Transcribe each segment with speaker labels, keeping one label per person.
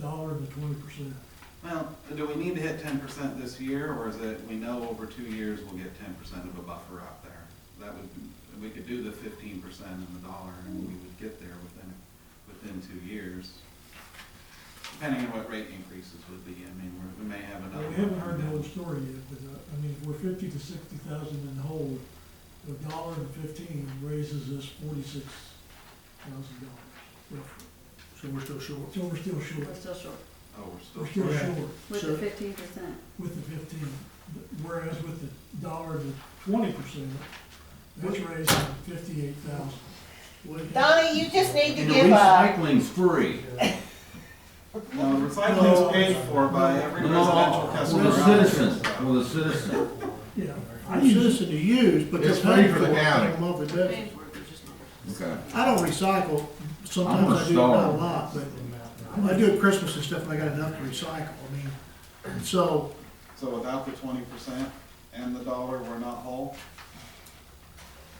Speaker 1: twenty percent.
Speaker 2: Well, do we need to hit ten percent this year, or is it, we know over two years we'll get ten percent of a buffer out there? That would, we could do the fifteen percent in the dollar, and we would get there within, within two years. Depending on what rate increases would be, I mean, we're- we may have
Speaker 1: Now,
Speaker 2: another.
Speaker 1: we haven't heard the whole story yet, but, uh, I mean, if we're fifty to sixty thousand in the hole, a dollar and fifteen raises us forty-six thousand dollars roughly.
Speaker 3: So we're still short.
Speaker 1: So we're still short,
Speaker 4: We're still short
Speaker 2: Oh, we're still.
Speaker 1: we're still
Speaker 3: Okay.
Speaker 1: short
Speaker 4: with
Speaker 3: So-
Speaker 4: the fifteen percent.
Speaker 1: with the fifteen, whereas with the dollar to twenty percent, that's raising fifty-eight thousand.
Speaker 5: Donnie, you just need to
Speaker 6: And
Speaker 5: give up.
Speaker 6: recycling's free.
Speaker 2: No,
Speaker 1: No.
Speaker 2: recycling's paid for by every
Speaker 6: No,
Speaker 2: residential customer.
Speaker 6: Well, the
Speaker 2: out there,
Speaker 6: citizen,
Speaker 2: so.
Speaker 6: well, the citizen.
Speaker 1: Yeah,
Speaker 3: I'm a citizen to use, but they're
Speaker 6: It's free
Speaker 3: paying
Speaker 6: for
Speaker 3: for
Speaker 6: the
Speaker 3: it on
Speaker 6: county.
Speaker 3: a monthly basis.
Speaker 6: Okay.
Speaker 3: I don't recycle,
Speaker 6: I'm
Speaker 3: sometimes
Speaker 6: a
Speaker 3: I do, not a
Speaker 6: star.
Speaker 3: lot, but I do at Christmas and stuff, and I got enough to recycle, I mean, so,
Speaker 2: So without the twenty percent and the dollar, we're not whole?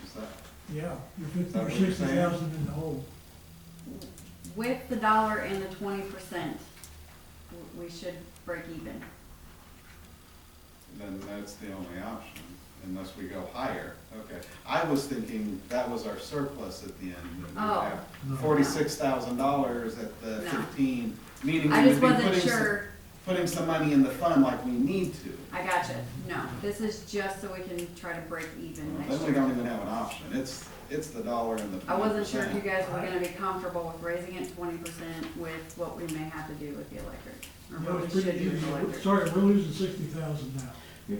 Speaker 2: Is that?
Speaker 1: yeah, you're fifty
Speaker 2: That
Speaker 1: or
Speaker 2: what you're
Speaker 1: sixty
Speaker 2: saying?
Speaker 1: thousand in the hole.
Speaker 4: With the dollar and the twenty percent, we should break even.
Speaker 2: then that's the only option, unless we go higher. Okay, I was thinking that was our surplus at the end, that we
Speaker 4: Oh.
Speaker 3: No.
Speaker 2: have forty-six thousand dollars at the
Speaker 4: No.
Speaker 2: fifteen, meaning
Speaker 4: I
Speaker 2: we would
Speaker 4: just
Speaker 2: be
Speaker 4: wasn't
Speaker 2: putting some,
Speaker 4: sure,
Speaker 2: putting some money in the fund like we need to.
Speaker 4: I gotcha, no, this is just so we can try to break even next
Speaker 2: Then we don't
Speaker 4: year.
Speaker 2: even have an option, it's, it's the dollar and the
Speaker 4: I
Speaker 2: twenty
Speaker 4: wasn't sure if you
Speaker 2: percent.
Speaker 4: guys were gonna be comfortable with raising it twenty percent with what we may have to do with the electric, or
Speaker 1: No,
Speaker 4: what we
Speaker 1: it's
Speaker 4: should
Speaker 1: pretty
Speaker 4: do
Speaker 1: easy.
Speaker 4: with the
Speaker 1: We're-
Speaker 4: electric.
Speaker 1: Sorry, we're losing sixty thousand now.
Speaker 6: Yeah.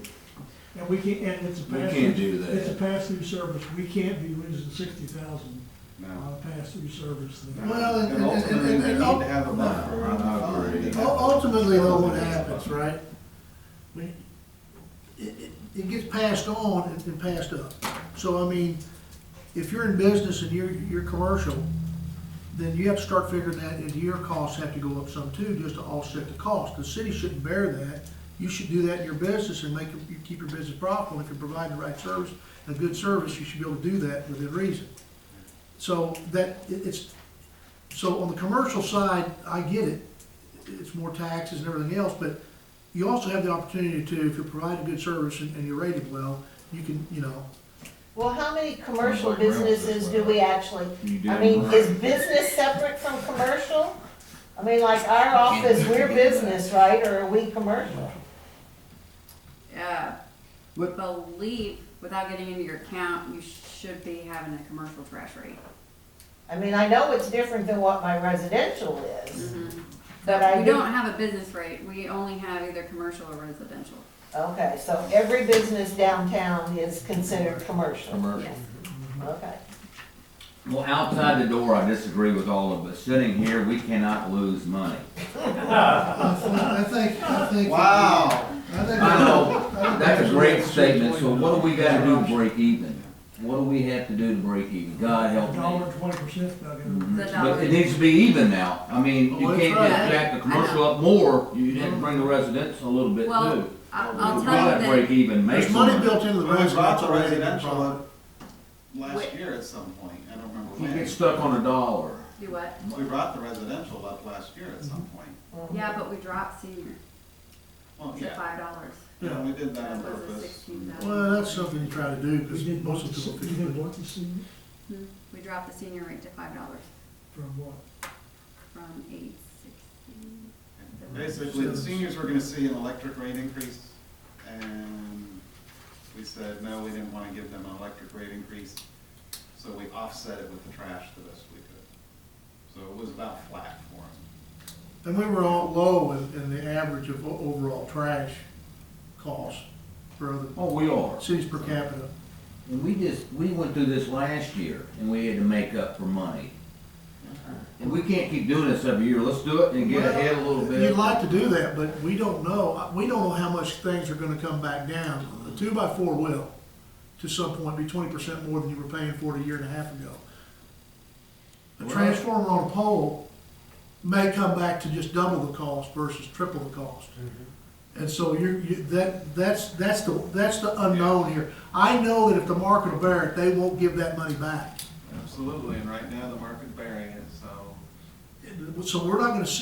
Speaker 1: And we can't, and it's a
Speaker 6: We
Speaker 1: pass.
Speaker 6: can't do
Speaker 1: It's a
Speaker 6: that.
Speaker 1: pass-through service. We can't be losing sixty thousand
Speaker 2: No.
Speaker 1: on a pass-through service.
Speaker 2: No.
Speaker 3: well,
Speaker 2: And
Speaker 3: and, and, and,
Speaker 2: ultimately,
Speaker 3: and,
Speaker 2: we need
Speaker 3: and
Speaker 2: to
Speaker 3: ul-
Speaker 2: have a
Speaker 6: No,
Speaker 2: buffer in the
Speaker 6: I
Speaker 2: fund.
Speaker 6: agree.
Speaker 3: ultimately, though, what happens, right? We, it, it, it gets passed on and, and passed up. So, I mean, if you're in business and you're, you're commercial, then you have to start figuring that, and your costs have to go up some too, just to offset the cost. The city shouldn't bear that. You should do that in your business and make, you keep your business profitable. If you're providing the right service, a good service, you should be able to do that within reason. So that, it- it's, so on the commercial side, I get it. It's more taxes and everything else, but you also have the opportunity to, if you provide a good service and, and you're rated well, you can, you know,
Speaker 5: Well, how many commercial
Speaker 6: Sounds like Ralph is
Speaker 5: businesses do
Speaker 6: right.
Speaker 5: we actually,
Speaker 6: You
Speaker 5: I
Speaker 6: damn
Speaker 5: mean,
Speaker 6: right.
Speaker 5: is business separate from commercial? I mean, like our office, we're business, right, or are we commercial?
Speaker 4: Uh,
Speaker 6: What-
Speaker 4: believe, without getting into your account, you should be having a commercial trash rate.
Speaker 5: I mean, I know it's different than what my residential is,
Speaker 4: Mm-hmm.
Speaker 5: but
Speaker 4: But
Speaker 5: I
Speaker 4: we
Speaker 5: do,
Speaker 4: don't have a business rate, we only have either commercial or residential.
Speaker 5: okay, so every business downtown is considered commercial,
Speaker 6: Commercial.
Speaker 5: okay.
Speaker 6: Well, outside the door, I disagree with all of us. Sitting here, we cannot lose money.
Speaker 3: I think, I think.
Speaker 2: Wow,
Speaker 3: I think-
Speaker 6: I know,
Speaker 3: I think
Speaker 6: that's a great
Speaker 3: that's
Speaker 6: statement, so
Speaker 3: point.
Speaker 6: what do we gotta do to break even? What do we have to do to break even? God help
Speaker 1: A dollar
Speaker 6: me.
Speaker 1: and twenty percent's not
Speaker 6: Mhm.
Speaker 1: gonna.
Speaker 4: The dollar.
Speaker 6: But it needs to be even now. I mean, you
Speaker 3: Well,
Speaker 6: can't
Speaker 3: that's
Speaker 4: right.
Speaker 6: just jack the
Speaker 4: I know.
Speaker 6: commercial up more, you have to bring the residents a little bit too.
Speaker 4: Well, I- I'll tell
Speaker 6: We gotta
Speaker 4: you that.
Speaker 6: Break even, make
Speaker 3: There's money
Speaker 6: some-
Speaker 3: built into the
Speaker 2: Well, we
Speaker 3: residential.
Speaker 2: brought the
Speaker 3: already.
Speaker 2: residential up last
Speaker 4: Wait.
Speaker 2: year at some point, I don't remember
Speaker 6: You
Speaker 2: when.
Speaker 6: get stuck on a dollar.
Speaker 4: Do what?
Speaker 2: We brought the residential up last year at some point.
Speaker 5: Mhm.
Speaker 4: Yeah, but we dropped senior
Speaker 2: Well,
Speaker 4: to
Speaker 2: yeah,
Speaker 4: five dollars.
Speaker 2: yeah, we did that
Speaker 4: That
Speaker 2: on
Speaker 4: was a
Speaker 2: purpose.
Speaker 4: sixteen
Speaker 3: Well,
Speaker 4: thousand.
Speaker 3: that's something you try to do, because
Speaker 1: We did
Speaker 3: most
Speaker 1: want to,
Speaker 3: of the
Speaker 1: see-
Speaker 3: people.
Speaker 1: we did want to see
Speaker 4: Hmm? We dropped the senior rate to five dollars
Speaker 1: from what?
Speaker 4: from eight sixty.
Speaker 2: Basically, the seniors were gonna see an electric rate increase, and we said, no, we didn't wanna give them an electric rate increase, so we offset it with the trash the best we could. So it was about flat for them.
Speaker 3: And we were all low in, in the average of o- overall trash cost for other
Speaker 6: Oh, we are.
Speaker 3: cities per capita.
Speaker 6: And we just, we went through this last year and we had to make up for money.
Speaker 3: Uh-huh.
Speaker 6: And we can't keep doing this every year. Let's do it and get ahead a little bit.
Speaker 3: You'd like to do that, but we don't know, we don't know how much things are gonna come back down. The two by four will, to some point, be twenty percent more than you were paying for it a year and a half ago. A
Speaker 6: Well-
Speaker 3: transformer on a pole may come back to just double the cost versus triple the cost.
Speaker 6: Mm-hmm.
Speaker 3: And so you're, you, that, that's, that's the, that's the unknown here. I know that if the market will bear it, they won't give that money back.
Speaker 2: Absolutely, and right now, the market bearing it, so.
Speaker 3: So we're not gonna see